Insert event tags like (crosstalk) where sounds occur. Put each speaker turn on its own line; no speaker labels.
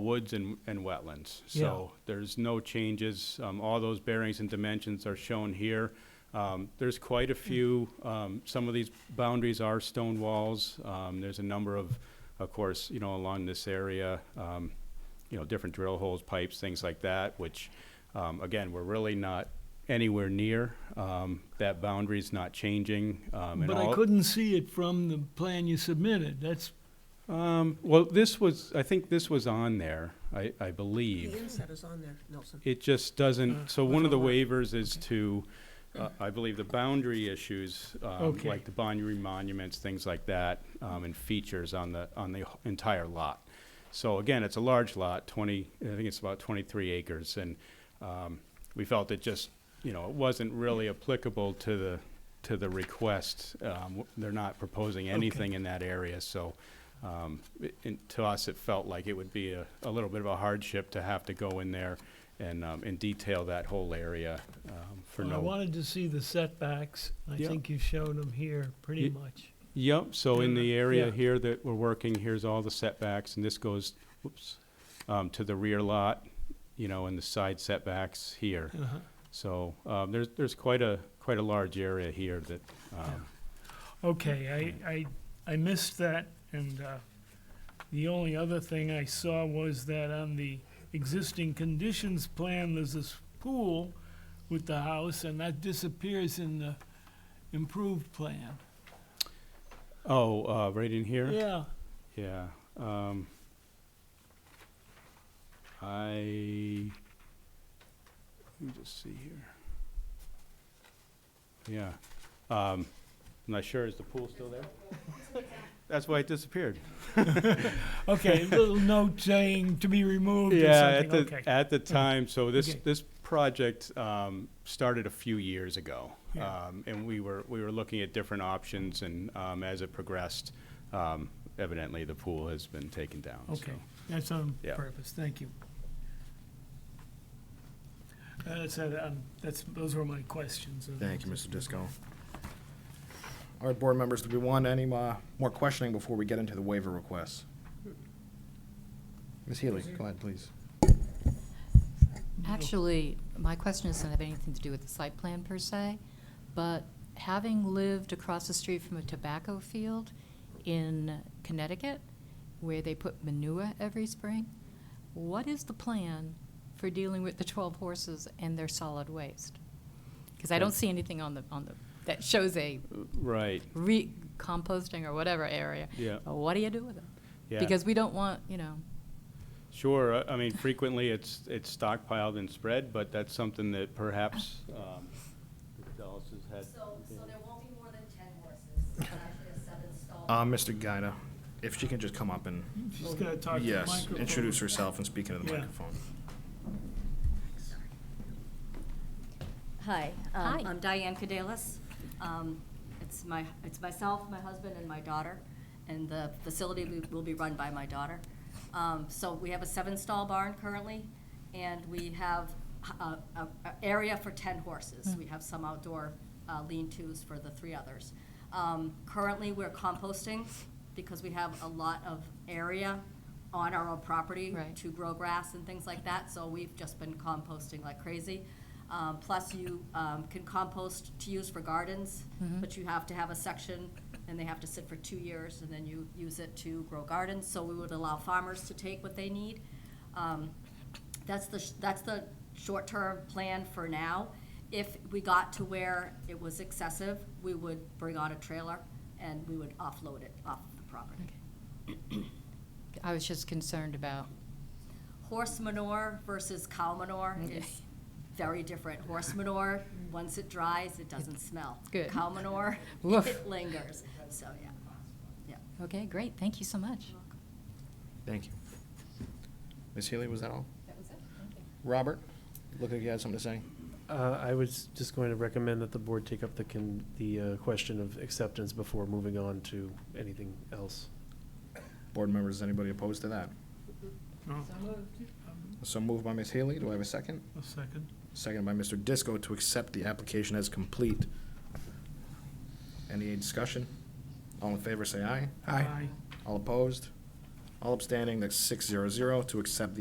woods and, and wetlands. So there's no changes. Um, all those bearings and dimensions are shown here. Um, there's
Hmm.
quite a few, um, some of these boundaries are stone walls. Um, there's a number of, of course, you know, along this area, um, you know, different drill holes, pipes, things like that, which, um, again, we're really not anywhere near. Um, that boundary's not changing. um, and
But I
all-
couldn't see it from the plan you submitted, that's,
Um, well, this was, I think this was on there, I, I believe.
The inset is on there, Nelson.
It just doesn't, so one of the
don't worry.
waivers is to, uh, I believe, the boundary issues, um,
Okay.
like the boundary monuments, things like that, um, and features on the, on the entire lot. So again, it's a large lot, twenty, I think it's about twenty-three acres, and, um, we felt it just, you know, it wasn't really applicable to the, to the request. Um, w- they're not proposing anything in that area, so, um, it- and to us, it felt like it would be a, a little bit of a hardship to have to go in there and, um, and detail that whole area, um, for
I
no.
wanted to see the setbacks, I
Yeah.
think you showed them here, pretty
Ye-
much.
Yep, so in the area
Yeah.
here that we're working, here's all the setbacks, and this goes, whoops, um, to the rear lot, you know, and the side setbacks here.
Uh-huh.
So, um, there's, there's quite a, quite a large area here that, um,
Okay, I, I, I missed that, and, uh, the only other thing I saw was that on the existing conditions plan, there's this pool with the house, and that disappears in the improved plan.
oh, uh, right in here?
Yeah,
Yeah, um, I, let me just see here. Yeah, um, I'm not sure, is the pool still there?
(laughs)
That's why it disappeared.
okay, little note saying to be removed or
Yeah, at
something,
the,
okay. Mm-hmm.
at the time, so this,
Okay.
this project, um, started a few years ago.
Yeah.
Um, and we were, we were looking at different options and, um, as it progressed, um, evidently the pool has been taken down, so.
Okay, that's on
Yeah.
purpose, thank you. Uh, That's, uh, um, that's, those were my questions. uh,
Thank you, Mr. Disco. All right, board members, do we want any uh, more questioning before we get into the waiver requests? Ms. Healy, go ahead, please.
Actually, my question doesn't have anything to do with the site plan per se, but having lived across the street from a tobacco field in Connecticut, where they put manure every spring, what is the plan for dealing with the twelve horses and their solid waste? Because I don't see anything on the, on the, that shows a
Right,
re, composting or whatever area.
yeah.
But What do you do with it?
Yeah,
Because we don't want, you know,
sure. I- I mean, frequently it's, it's stockpiled and spread, but that's something that perhaps um, Dallas has had.
So, so there won't be more than ten horses, but actually a seven stall.
Uh, Mr. Gaida, if she can just come up and,
She's gonna talk to the
yes,
microphone.
introduce herself and speak into the
Yeah.
microphone.
Hi,
Hi.
um, I'm Diane Cadelas. Um, It's my, it's myself, my husband, and my daughter, and the facility will- will be run by my daughter. Um, So we have a seven-stall barn currently, and we have a, a- a area for ten horses.
Hmm.
We have some outdoor uh, lean-tos for the three others. Um, Currently, we're composting because we have a lot of area on our own property
Right.
to grow grass and things like that, so we've just been composting like crazy. Um, plus you, um, can compost to use for gardens, but you have to have a section and they have to sit for two years and then you use it to grow gardens, so we would allow farmers to take what they need. Um, that's the, sh- that's the short-term plan for now. If we got to where it was excessive, we would bring on a trailer and we would offload it off the property.
I was just concerned about
horse manure versus cow manure
Mm-hmm.
is very different. Horse manure, once it dries, it doesn't smell.
Good.
Cow manure,
Woof.
(laughs) it lingers. So, yeah. Yeah.
Okay, great, thank you so much.
Thank you. Ms. Healy, was that all?
That was it,
Robert, look like you had something to say.
Uh, I was just going to recommend that the board take up the con, the, uh, question of acceptance before moving on to anything else.
Board members, is anybody opposed to that?
No,
So moved by Ms. Healy, do I have a second?
A second.
Second by Mr. Disco to accept the application as complete. Any discussion? All in favor, say aye. All opposed? All abstaining, that's six zero zero to accept the